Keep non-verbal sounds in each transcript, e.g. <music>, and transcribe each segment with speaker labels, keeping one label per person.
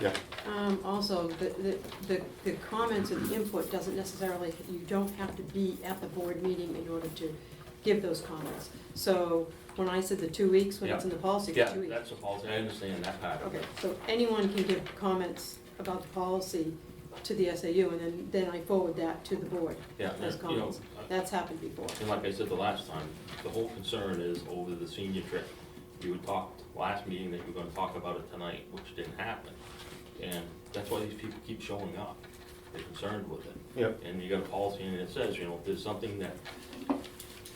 Speaker 1: Yeah.
Speaker 2: Um, also, the, the, the, the comments and the input doesn't necessarily, you don't have to be at the board meeting in order to give those comments. So when I said the two weeks, when it's in the policy, the
Speaker 3: Yeah,
Speaker 2: two weeks.
Speaker 3: that's a policy, I understand that part of
Speaker 2: Okay,
Speaker 3: it.
Speaker 2: so anyone can give comments about the policy to the SAU and then, then I forward that to the board.
Speaker 3: Yeah,
Speaker 2: Those
Speaker 3: and, you know,
Speaker 2: comments. That's happened before.
Speaker 3: And like I said the last time, the whole concern is over the senior trip. You had talked last meeting that you were gonna talk about it tonight, which didn't happen. And that's why these people keep showing up. They're concerned with it.
Speaker 1: Yep.
Speaker 3: And you got a policy and it says, you know, if there's something that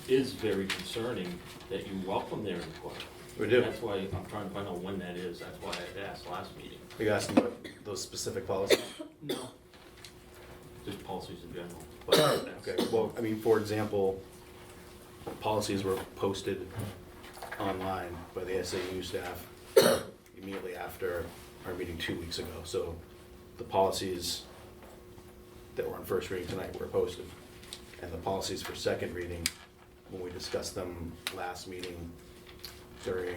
Speaker 3: is very concerning, that you welcome their input.
Speaker 1: We do.
Speaker 3: That's why I'm trying to find out when that is. That's why I asked last meeting.
Speaker 1: Are you asking about those specific policies?
Speaker 3: No. Just policies in general. but that's-
Speaker 1: <coughs> Okay, well, I mean, for example, policies were posted online by the SAU staff immediately after our meeting two weeks ago. So the policies that were on first reading tonight were posted. And the policies for second reading, when we discussed them last meeting during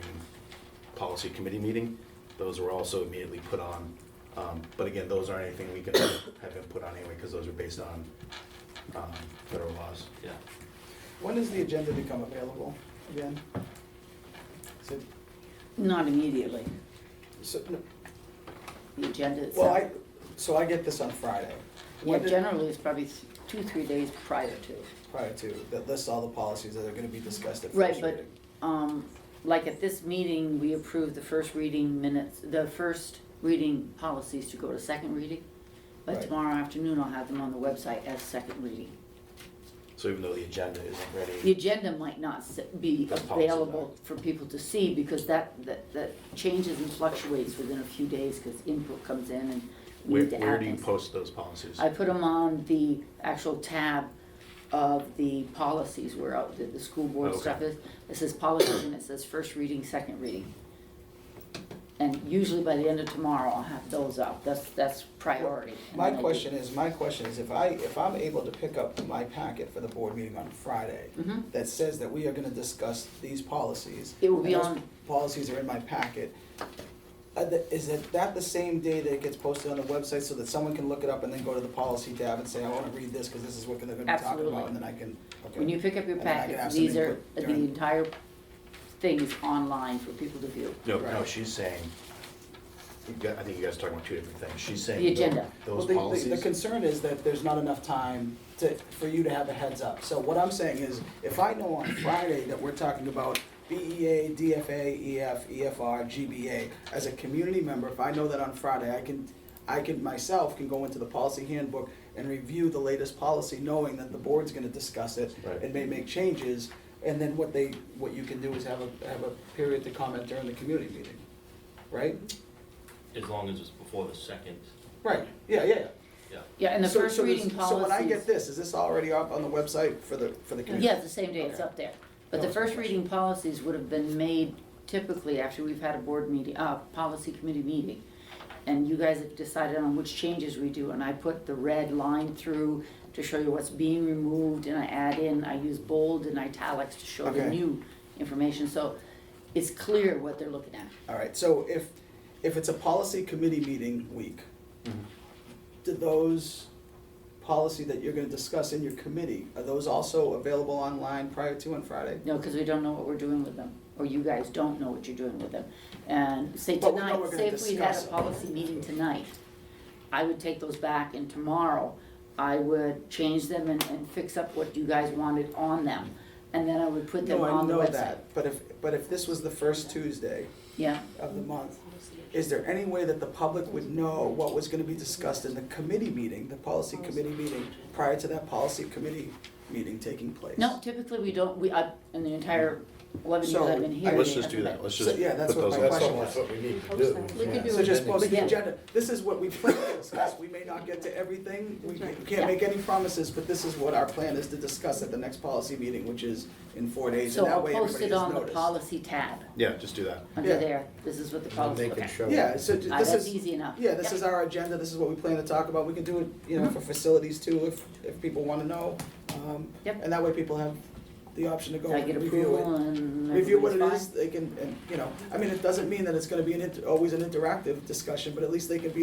Speaker 1: policy committee meeting, those were also immediately put on. Um, But again, those aren't anything we can <coughs> have input on anyway, because those are based on um, federal laws.
Speaker 3: Yeah.
Speaker 4: When does the agenda become available again? Is it-
Speaker 5: Not immediately.
Speaker 4: so- no,
Speaker 5: The agenda itself.
Speaker 4: Well, I, so I get this on Friday.
Speaker 5: Yeah,
Speaker 4: When did-
Speaker 5: generally, it's probably th- two, three days prior to.
Speaker 4: Prior to, that lists all the policies that are gonna be discussed at
Speaker 5: Right,
Speaker 4: first
Speaker 5: but,
Speaker 4: reading.
Speaker 5: um, like at this meeting, we approved the first reading minutes, the first reading policies to go to second reading. But
Speaker 4: Right.
Speaker 5: tomorrow afternoon, I'll have them on the website as second reading.
Speaker 1: So even though the agenda isn't
Speaker 5: The
Speaker 1: ready,
Speaker 5: agenda might not s- be
Speaker 1: The policy
Speaker 5: available for people to see because that, that, that changes and fluctuates within a few days because input comes in and we
Speaker 1: where,
Speaker 5: need to add
Speaker 1: where do you
Speaker 5: things.
Speaker 1: post those policies?
Speaker 5: I put them on the actual tab of the policies where out the, the school board
Speaker 1: Okay.
Speaker 5: stuff is. It says policies and it says first reading, second reading. And usually by the end of tomorrow, I'll have those up. That's, that's priority. And
Speaker 4: My
Speaker 5: then I do-
Speaker 4: question is, my question is, if I, if I'm able to pick up my packet for the board meeting on Friday
Speaker 5: Mhm.
Speaker 4: that says that we are gonna discuss these policies.
Speaker 5: It will be
Speaker 4: and those
Speaker 5: on-
Speaker 4: Policies are in my packet. uh, the- Is it that the same day that it gets posted on the website so that someone can look it up and then go to the policy tab and say, I wanna read this, cause this is what they're gonna be talking
Speaker 5: Absolutely.
Speaker 4: about, and then I can, okay.
Speaker 5: When you pick up your
Speaker 4: And then I can
Speaker 5: packets,
Speaker 4: have some
Speaker 5: these are,
Speaker 4: input
Speaker 5: the
Speaker 4: during-
Speaker 5: entire thing is online for people to view.
Speaker 1: No, no,
Speaker 4: Right.
Speaker 1: she's saying, you got- I think you guys are talking about two different things. She's saying.
Speaker 5: The
Speaker 1: tho-
Speaker 5: agenda.
Speaker 4: Well,
Speaker 1: Those
Speaker 4: the- The, the
Speaker 1: policies,
Speaker 4: concern is that there's not enough time to, for you to have a heads up. So what I'm saying is, if I know on Friday that we're talking about E BEA, DFA, EF, EFR, GBA, as a community member, if I know that on Friday, I can, I can, myself can go into the policy handbook and review the latest policy, knowing that the board's gonna discuss it
Speaker 1: Right.
Speaker 4: and may make changes. And then what they, what you can do is have a, have a period to comment during the community meeting, right?
Speaker 3: As long as it's before the second,
Speaker 4: Right, yeah, yeah, yeah.
Speaker 3: yeah.
Speaker 5: Yeah, and the
Speaker 4: So-
Speaker 5: first
Speaker 4: so this-
Speaker 5: reading
Speaker 4: So when I get
Speaker 5: policies,
Speaker 4: this, is this already up on the website for the, for the community?
Speaker 5: yeah, it's the same day, it's
Speaker 4: Okay. Oh,
Speaker 5: up there.
Speaker 4: That
Speaker 5: But the
Speaker 4: was my
Speaker 5: first
Speaker 4: question.
Speaker 5: reading policies would have been made typically after we've had a board meeting, uh, policy committee meeting. And you guys have decided on which changes we do, and I put the red line through to show you what's being removed, and I add in, I use bold and italics to show the
Speaker 4: Okay.
Speaker 5: new information, so it's clear what they're looking at.
Speaker 4: All right, so if, if it's a policy committee meeting week,
Speaker 1: Mm-hmm.
Speaker 4: do those policy that you're gonna discuss in your committee, are those also available online prior to on Friday?
Speaker 5: No, because we don't know what we're doing with them, or you guys don't know what you're doing with them. And say
Speaker 4: But we know
Speaker 5: tonight,
Speaker 4: we're gonna
Speaker 5: say if we had
Speaker 4: discuss
Speaker 5: a
Speaker 4: it.
Speaker 5: policy meeting tonight, I would take those back and tomorrow I would change them and, and fix up what you guys wanted on them. And then I would put them
Speaker 4: No, I
Speaker 5: on the
Speaker 4: know
Speaker 5: website.
Speaker 4: that, but if, but if this was the first Tuesday
Speaker 5: Yeah,
Speaker 4: of the month, is there any way that the public would know what was gonna be discussed in the committee meeting, the policy committee meeting, prior to that policy committee meeting taking place?
Speaker 5: no, typically we don't, we, I, in the entire eleven years
Speaker 4: So,
Speaker 5: I've been here.
Speaker 1: let's
Speaker 5: we
Speaker 1: just do
Speaker 5: haven't
Speaker 1: that,
Speaker 5: been-
Speaker 1: let's
Speaker 4: So,
Speaker 1: just
Speaker 4: yeah,
Speaker 1: put
Speaker 4: that's what
Speaker 1: those
Speaker 4: my
Speaker 1: on.
Speaker 4: question
Speaker 6: That's
Speaker 4: was.
Speaker 6: what we need to do.
Speaker 2: We could do
Speaker 4: So
Speaker 2: it.
Speaker 4: just post the
Speaker 5: Yeah.
Speaker 4: agenda, this is what we plan to discuss, we may not get to everything, we
Speaker 2: That's right.
Speaker 4: can't make any promises, but this is what our plan is to discuss at the next policy meeting, which is in four days,
Speaker 5: So
Speaker 4: and
Speaker 5: I'll
Speaker 4: that way
Speaker 5: post
Speaker 4: everybody is
Speaker 5: it on the
Speaker 4: noticed.
Speaker 5: policy tab,
Speaker 1: yeah, just do that.
Speaker 5: under
Speaker 4: Yeah.
Speaker 5: there, this is what the policy,
Speaker 6: They
Speaker 5: okay.
Speaker 6: can show.
Speaker 4: Yeah, so j-
Speaker 5: Ah,
Speaker 4: this
Speaker 5: that's
Speaker 4: is,
Speaker 5: easy enough. Mm-hmm.
Speaker 4: yeah, this
Speaker 5: Yep.
Speaker 4: is our agenda, this is what we plan to talk about, we can do it, you know, for facilities too, if, if people wanna know. um,
Speaker 5: Yep.
Speaker 4: And that way people have the option to go
Speaker 5: I
Speaker 4: and
Speaker 5: get
Speaker 4: review it.
Speaker 5: approval and
Speaker 4: review what it
Speaker 5: everybody's
Speaker 4: is,
Speaker 5: fine?
Speaker 4: they can, and, you know, I mean, it doesn't mean that it's gonna be an, inter- always an interactive discussion, but at least they can be